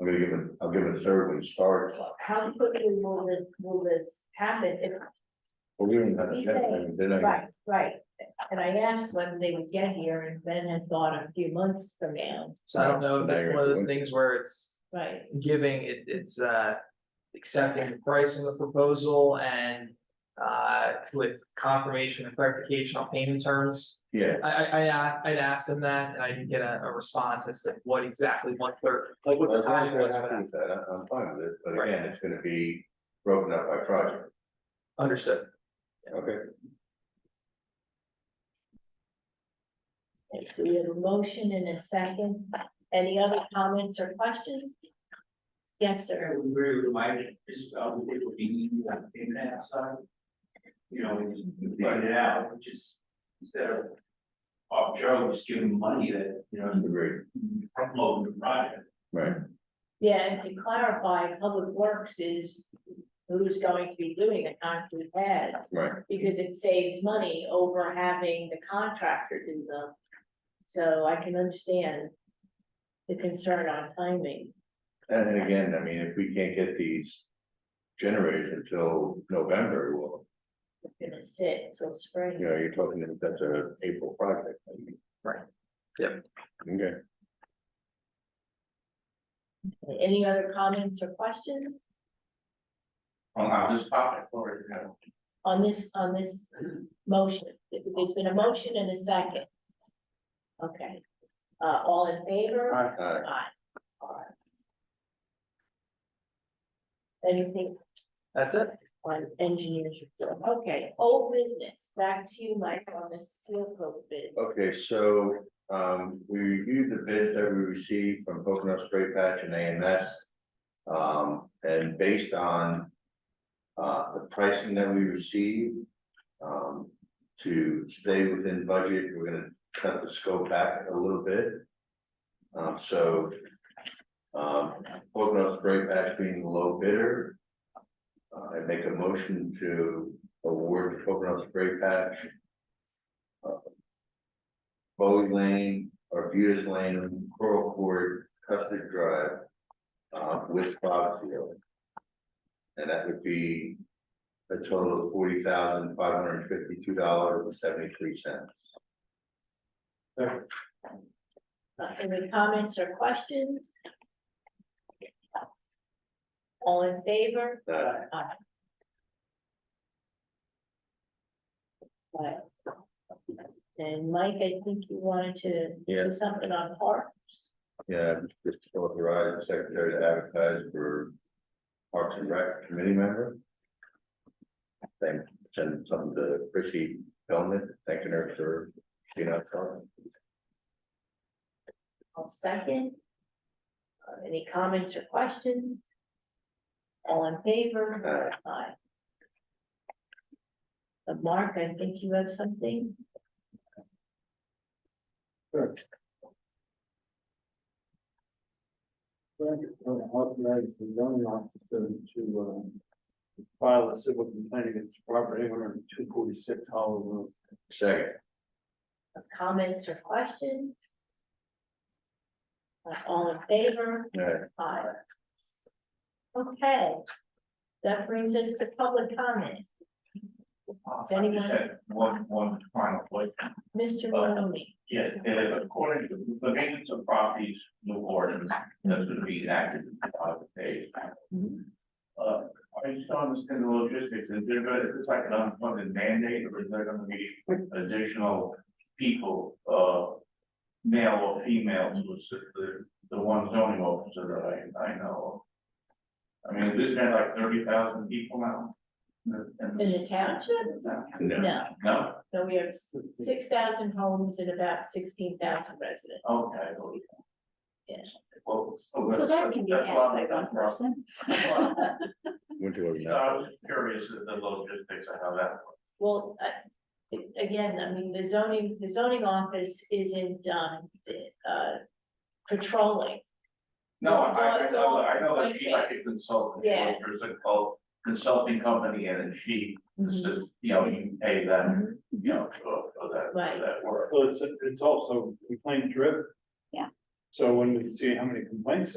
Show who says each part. Speaker 1: I'm gonna give it, I'll give it a third when it starts,
Speaker 2: How quickly will this, will this happen if
Speaker 1: but we don't have a
Speaker 2: We
Speaker 1: deadline, they're not,
Speaker 2: Right, right, and I asked when they would get here, and Ben had thought a few months from now,
Speaker 3: So I don't know if that's one of
Speaker 1: Right.
Speaker 3: those things where it's
Speaker 2: right?
Speaker 3: giving, it, it's, uh. Accepting the price of the proposal and, uh, with confirmation and clarification on payment terms.
Speaker 1: yeah,
Speaker 3: I, I, I, a- I'd asked them that and I didn't get a, a response as to what exactly one third, like what
Speaker 1: well,
Speaker 3: the
Speaker 1: as long as
Speaker 3: time was
Speaker 1: they're
Speaker 3: for
Speaker 1: happy
Speaker 3: that.
Speaker 1: with that, I- I'm fine with it, but
Speaker 3: Right.
Speaker 1: again, it's gonna be broken up by project,
Speaker 3: Understood.
Speaker 1: okay?
Speaker 2: Okay, So we have a motion and a second, any other comments or questions? Yes,
Speaker 4: I
Speaker 2: sir,
Speaker 4: would agree with Mike, just, um, it would be easy to have pavement outside. You know, we just figure it out, which is, instead of arbitrarily just giving money that, you know,
Speaker 1: Agreed,
Speaker 4: you front-load the project.
Speaker 1: right,
Speaker 2: yeah, and to clarify, Public Works is who's going to be doing the concrete pads,
Speaker 1: right,
Speaker 2: because it saves money over having the contractor do them. So I can understand the concern on timing.
Speaker 1: and then again, I mean, if we can't get these generated until November, well,
Speaker 2: gonna sit till spring.
Speaker 1: you know, you're talking, that that's a April project.
Speaker 3: Right. Yep.
Speaker 1: Okay.
Speaker 2: Any other comments or questions
Speaker 4: Um, I'll just pop it forward, you know.
Speaker 2: on this, on this motion? There's been a motion and a second. Okay, uh, all in favor?
Speaker 4: Alright.
Speaker 1: All right,
Speaker 2: Aye. Alright. Anything
Speaker 3: That's it.
Speaker 2: on engineers report? Okay, old business, back to you, Mike, on the seal coat bid.
Speaker 1: okay, so, um, we reviewed the bids that we received from Pocono Spray Patch and AMS. Um, and based on, uh, the pricing that we received, um, to stay within budget, we're gonna cut the scope back a little bit. Um, so, um, Pocono Spray Patch being the low bidder, uh, I make a motion to award the Pocono Spray Patch Bowie Lane, Arbutus Lane, Coral Court, Custard Drive, uh, with Foxville. And that would be a total of forty thousand, five hundred and fifty-two dollars and seventy-three cents.
Speaker 2: Uh, Any comments or questions? All in favor?
Speaker 1: Aye.
Speaker 2: Aye. Right. And Mike, I think you wanted to
Speaker 1: Yeah.
Speaker 2: do something on parks.
Speaker 1: Yeah, just authorize the secretary to advertise for Parks and Rec committee member. Thank, send something to Chrissy Bellman, thanking her for, you know,
Speaker 2: I'll second. Uh, Any comments or questions? All in favor? Aye. Uh, Mark, I think you have something?
Speaker 5: Authorize the zoning officer to, um, file a civil complaint against Robert Hager on two forty-six Hollow Road.
Speaker 1: second,
Speaker 2: Uh, Comments or questions? Uh, All in favor?
Speaker 1: uh,
Speaker 2: Aye. Okay. That brings us to public comment.
Speaker 4: Uh,
Speaker 2: Does anyone-
Speaker 4: I just had One, one final point.
Speaker 2: Mr. Maloney,
Speaker 4: Yes, uh, according to the maintenance of properties, new ordinance, that's gonna be enacted in five days.
Speaker 2: Mhm.
Speaker 4: Uh, I just don't understand the logistics, is there, gonna- is this like an unfunded mandate, or is there gonna be additional people, uh, male or female, who assist the, the one zoning officer that I, I know of? I mean, is there like thirty thousand people now? in the-
Speaker 2: in the township? No,
Speaker 4: No,
Speaker 2: no, we have six thousand homes and about sixteen thousand residents.
Speaker 4: okay.
Speaker 2: Yeah.
Speaker 4: Well.
Speaker 6: So that can be
Speaker 4: that's a
Speaker 6: had
Speaker 4: lot
Speaker 6: by
Speaker 4: of-
Speaker 6: one person.
Speaker 4: that's a lot of-
Speaker 1: went to a.
Speaker 4: So I was curious at the logistics of how that.
Speaker 2: Well, uh, a- again, I mean, the zoning, the zoning office isn't, um, uh, patrolling.
Speaker 4: No,
Speaker 2: It's all-
Speaker 4: I, I
Speaker 2: it's
Speaker 4: know,
Speaker 2: all
Speaker 4: I know that she's like
Speaker 2: point-based.
Speaker 4: a consultant, like,
Speaker 2: Yeah.
Speaker 4: there's a co- consulting company and then she,
Speaker 2: Mm-hmm.
Speaker 4: it's just, you know, you pay them,
Speaker 2: Mhm.
Speaker 4: you know, for for that,
Speaker 2: Right.
Speaker 4: for that work.
Speaker 5: Well, it's, it's also complaint driven.
Speaker 6: Yeah.
Speaker 5: So when we see how many complaints